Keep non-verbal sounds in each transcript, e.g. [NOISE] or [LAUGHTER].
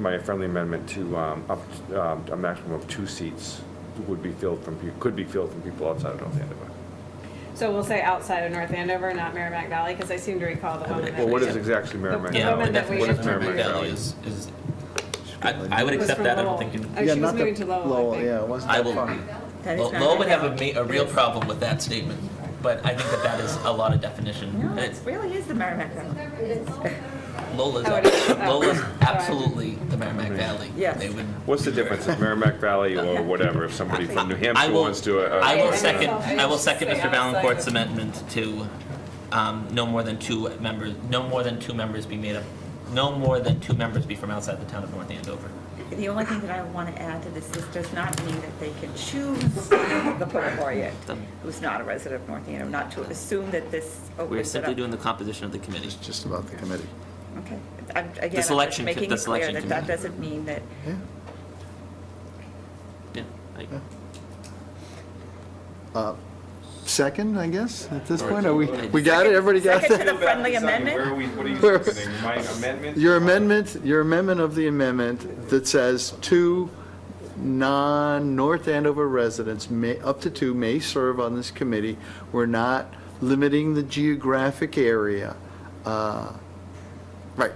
My friendly amendment to um, up, um, a maximum of two seats would be filled from, peo- could be filled from people outside of North Andover. So we'll say outside of North Andover, not Merrimack Valley, because I seem to recall the woman that. Well, what we- is exactly Merrimack? The Valley? Yeah, woman that we What is had- Merrimack Valley? Is, is, I, I would was accept from that, I don't Lowell. think, you- Oh, Yeah, she was not the- moving to Lowell, I think. Yeah, it wasn't I that will- far. That is not Lowell would right. have a ma, a real problem with that statement, but I think that that is a lot of definition. No, it It's- really is the Merrimack Valley. Lola's, Oh, it is. Oh. Lola's Sorry. absolutely the Merrimack Valley. Yes. They would. What's the difference, if Merrimack Valley or whatever, if somebody from New I Hampshire will- wants to? uh, I will uh, second, I will second Say Mr. outside. Valencourt's amendment to, um, no more than two members, no more than two members be made up, no more than two members be from outside the town of North Andover. The only thing that I want to add to this, this does not mean that they can choose the poet who's not a resident of North Andover, not to assume that this We're opens it simply up. doing the composition of the committee. It's just about the committee. Okay. I'm- Again, I'm just selection co- making the it clear selection that that committee. doesn't mean that, Yeah. Yeah, I- Uh, Second, I guess, at this Sorry. point, are we, we got it, everybody got Second to that? the friendly Sonny, Where are amendment? we, what are you Where- seconding? my amendment? Your amendment, your amendment of the amendment that says two non-North Andover residents, may, up to two, may serve on this committee. We're not limiting the geographic area. Uh, Right,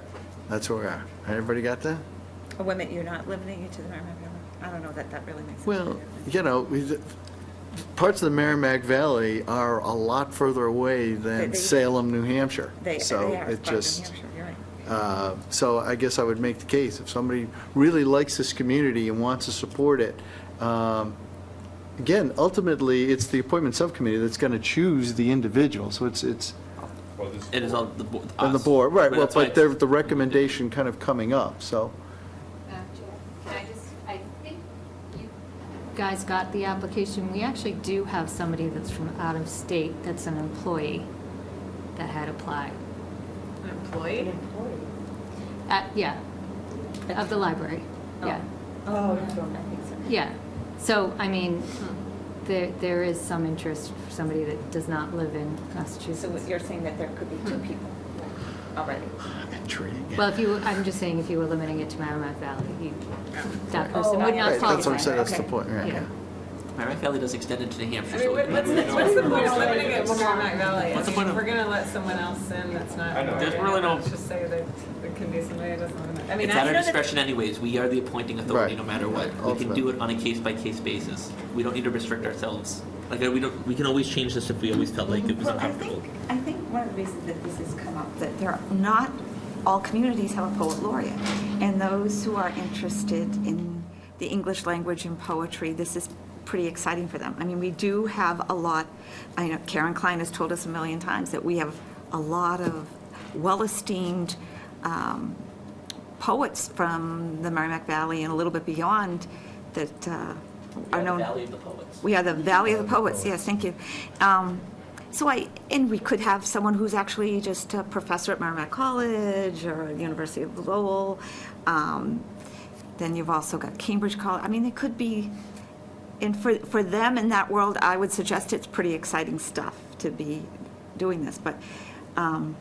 that's where we are. Everybody got that? oh, A women, you're not limiting it to the Merrimack Valley? I don't know that that really makes. any Well, difference. you know, we- parts of the Merrimack Valley are a lot further away They- than they- Salem, New Hampshire. They, they So are, it but New just, Hampshire, you're right. uh, so I guess I would make the case, if somebody really likes this community and wants to support it, um, again, ultimately, it's the appointment subcommittee that's going to choose the individual, so it's, it's, Well, this- It is all the board. on the us. board, right, well, that's why but it's- they're the recommendation kind of coming up, so. Madam Chair, Can I just, I think you guys got the application. We actually do have somebody that's from out of state that's an employee that had applied. An employee? Uh, Yeah, of the library, yeah. Oh. Yeah, so, I mean, Hmm. there, there is some interest for somebody that does not live in So Massachusetts. what you're saying that there could be two people already? Well, if you, I'm just saying, if you were limiting it to Merrimack Valley, you, that person would Oh, I not Right, qualify. That's what I'm saying, that's the Okay. point, right, Yeah. yeah. Merrimack Valley does extend into New I Hampshire, mean, so. what- what's, the- what's the point of limiting it to Merrimack Valley? I What's the mean, point of- We're gonna let someone else in that's not. I know. There's really no- Let's just say that it can be somebody that doesn't live in. I mean, It's I at know our that- discretion anyways, we are the appointing authority no Right. matter what. We can do Ultimately. it on a case-by-case basis. We don't need to restrict ourselves. Like, uh, we don't, we can always change this if we always felt like it was Well, I uncomfortable. think, I think one of the reasons that this has come up, that there are not, all communities have a poet laureate. And those who are interested in the English language and poetry, this is pretty exciting for them. I mean, we do have a lot, I know Karen Klein has told us a million times that we have a lot of well-esteemed um, poets from the Merrimack Valley and a little bit beyond that We uh, are have the known. Valley of the Poets. We are the Valley of the Poets, yes, thank you. Um, So I, and we could have someone who's actually just a professor at Merrimack College or the University of Lowell. Um, Then you've also got Cambridge College, I mean, it could be, and for, for them in that world, I would suggest it's pretty exciting stuff to be doing this, but, um,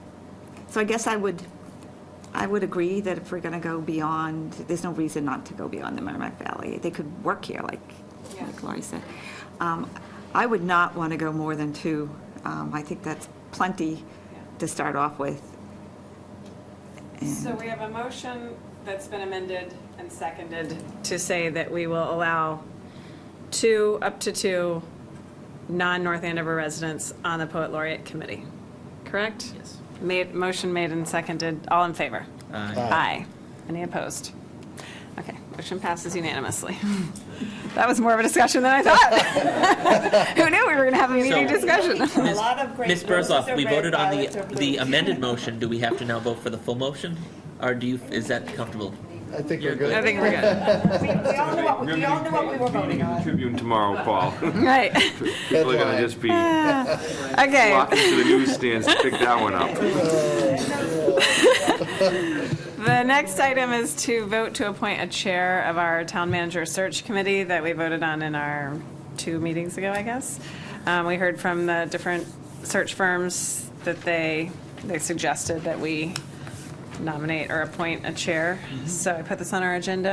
so I guess I would, I would agree that if we're going to go beyond, there's no reason not to go beyond the Merrimack Valley. They could work here, like, Yeah. like Lori said. Um, I would not want to go more than two. Um, I think that's plenty to start off with. So we have a motion that's been amended and seconded to say that we will allow two, up to two, non-North Andover residents on the Poet Laureate Committee, correct? Yes. Made, motion made and seconded, all in favor? Uh, Aye. Any opposed? Okay, motion passes unanimously. [LAUGHS] That was more of a discussion than I thought. [LAUGHS] Who knew we were going to have a meeting So- discussion? Ms. Ms. Burzloff, we voted on the, the amended motion. Do we have to now vote for the full motion? Or do you, is that comfortable? I think You're we're good. I good. think we're good. We all knew what we were voting on. Tribune tomorrow, [LAUGHS] Paul. [LAUGHS] Right, People are gonna Headline. just be okay. walking to the newsstands to pick that one up. The next item is to vote to appoint a chair of our town manager search committee that we voted on in our two meetings ago, I guess. Um, We heard from the different search firms that they, they suggested that we nominate or appoint a chair. So I put this on our agenda.